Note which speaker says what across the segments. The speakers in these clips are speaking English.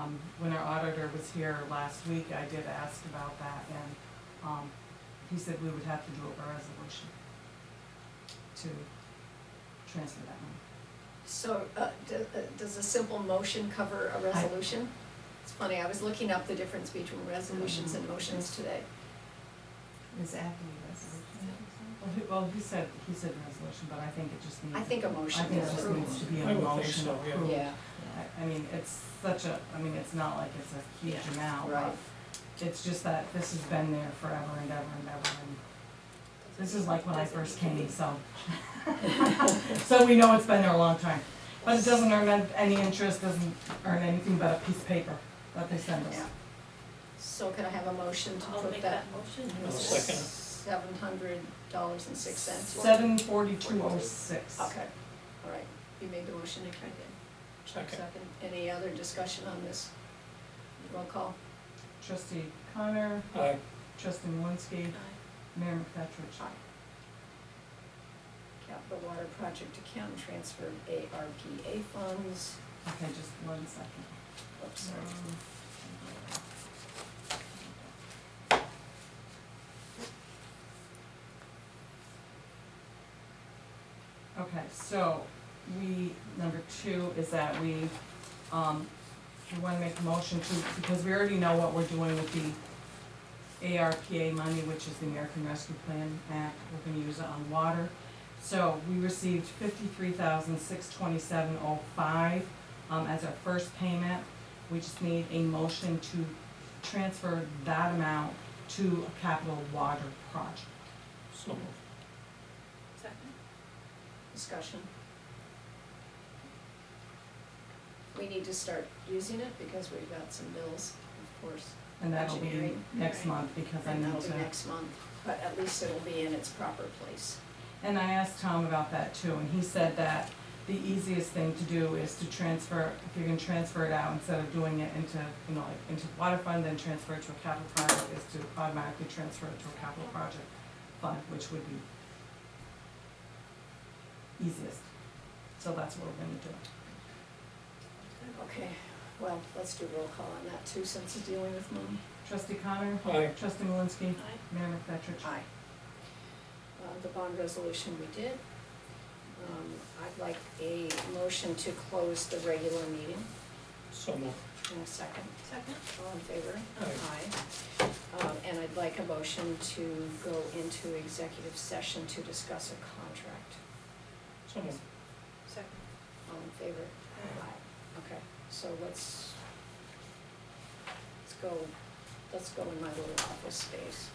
Speaker 1: um, when our auditor was here last week, I did ask about that, and, um, he said we would have to do a resolution to transfer that money.
Speaker 2: So, uh, d- uh, does a simple motion cover a resolution? It's funny, I was looking up the difference between resolutions and
Speaker 1: Mm.
Speaker 2: motions today.
Speaker 1: Is that the Well, he, well, he said, he said resolution, but I think it just needs.
Speaker 2: I think a motion
Speaker 1: I think it
Speaker 2: is
Speaker 1: just needs to
Speaker 2: approved.
Speaker 1: be a
Speaker 3: I would
Speaker 1: motion approved.
Speaker 3: think so, yeah.
Speaker 2: Yeah,
Speaker 1: I, I mean, it's such a, I mean, it's not like it's a huge amount,
Speaker 2: right.
Speaker 1: but it's just that this has been there forever and ever and ever, and this is like when I first came, so. So we know it's been there a long time, but it doesn't earn an- any interest, doesn't earn anything but a piece of paper that they send us.
Speaker 2: Yeah. So can I have a motion to
Speaker 4: I'll
Speaker 2: put
Speaker 4: make
Speaker 2: that?
Speaker 4: that motion.
Speaker 3: I'll second it.
Speaker 2: Seven hundred dollars and six cents.
Speaker 1: Seven forty-two oh six.
Speaker 2: Okay, all right, you made the motion, I tried to.
Speaker 3: Second.
Speaker 2: Any other discussion on this? Roll call.
Speaker 1: Trustee Connor,
Speaker 3: Aye.
Speaker 1: trustee Malinsky, mayor McFetrich.
Speaker 2: Capital Water Project account transfer ARPA funds.
Speaker 1: Okay, just one second.
Speaker 2: Oops, sorry.
Speaker 1: Okay, so we, number two is that we, um, we wanna make a motion to, because we already know what we're doing with the ARPA money, which is the American Rescue Plan Act, we're gonna use it on water. So we received fifty-three thousand, six twenty-seven oh five, um, as our first payment. We just need a motion to transfer that amount to a capital water project.
Speaker 3: So moved.
Speaker 4: Second.
Speaker 2: Discussion. We need to start using it because we've got some bills, of course,
Speaker 1: And that'll be
Speaker 2: Engineering,
Speaker 1: next
Speaker 4: right.
Speaker 1: month because I
Speaker 2: and
Speaker 1: need
Speaker 2: that'll be
Speaker 1: to,
Speaker 2: next month, but at least it'll be in its proper place.
Speaker 1: and I asked Tom about that too, and he said that the easiest thing to do is to transfer, if you're gonna transfer it out, instead of doing it into, you know, like into the water fund, then transfer it to a capital project, is to automatically transfer it to a capital project fund, which would be easiest. So that's what we're gonna do.
Speaker 2: Okay, well, let's do roll call on that too, since it's dealing with money.
Speaker 1: Trustee Connor,
Speaker 3: Aye.
Speaker 1: trustee Malinsky,
Speaker 4: Aye.
Speaker 1: Mayor McFetrich.
Speaker 2: Aye. Uh, the bond resolution we did. Um, I'd like a motion to close the regular meeting
Speaker 3: So moved.
Speaker 2: in a second.
Speaker 4: Second.
Speaker 2: All in favor?
Speaker 3: Aye.
Speaker 2: Um, and I'd like a motion to go into executive session to discuss a contract.
Speaker 3: So moved.
Speaker 4: Second.
Speaker 2: All in favor? Aye. Okay, so let's, let's go, let's go in my little office space.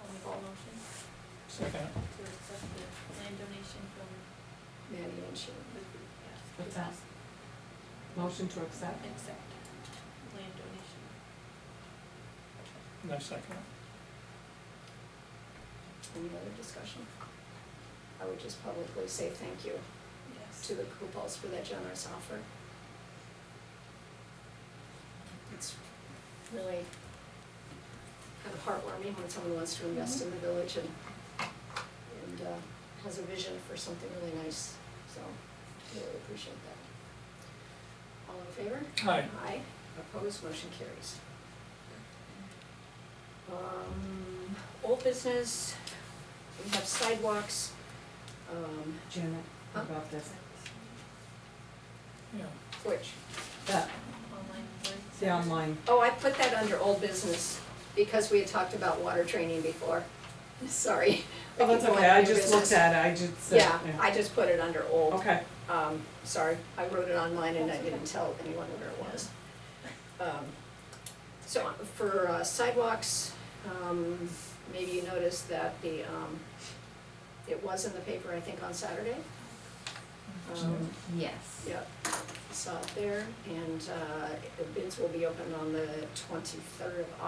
Speaker 4: I'll make a motion
Speaker 3: Second.
Speaker 4: to accept the land donation from
Speaker 2: Maddie and Sheila.
Speaker 4: the group, yes.
Speaker 5: What's that? Motion to accept.
Speaker 4: Accept land donation.
Speaker 3: No second.
Speaker 2: Any other discussion? I would just publicly say thank you
Speaker 4: Yes.
Speaker 2: to the Kupals for that generous offer. It's really kind of heartwarming when someone wants to invest in the village and, and uh, has a vision for something really nice, so really appreciate that. All in favor?
Speaker 3: Aye.
Speaker 2: Aye. Opposed, motion carries. Um, old business, we have sidewalks, um,
Speaker 1: Janet,
Speaker 2: Huh?
Speaker 1: about this,
Speaker 3: Yeah.
Speaker 2: which,
Speaker 1: that,
Speaker 4: Online. board.
Speaker 1: the online,
Speaker 2: oh, I put that under old business because we had talked about water training before. Sorry.
Speaker 1: oh, that's
Speaker 2: keep going
Speaker 1: okay, I
Speaker 2: through
Speaker 1: just looked
Speaker 2: business.
Speaker 1: at it, I just said,
Speaker 2: Yeah, I just put it under old,
Speaker 1: Okay.
Speaker 2: um, sorry, I wrote it online and I didn't tell anyone where it was. Um, So for uh, sidewalks, um, maybe you noticed that the, um, it was in the paper, I think, on Saturday. Um,
Speaker 5: Yes.
Speaker 2: Yep, saw it there, and uh, bids will be opened on the twenty-third of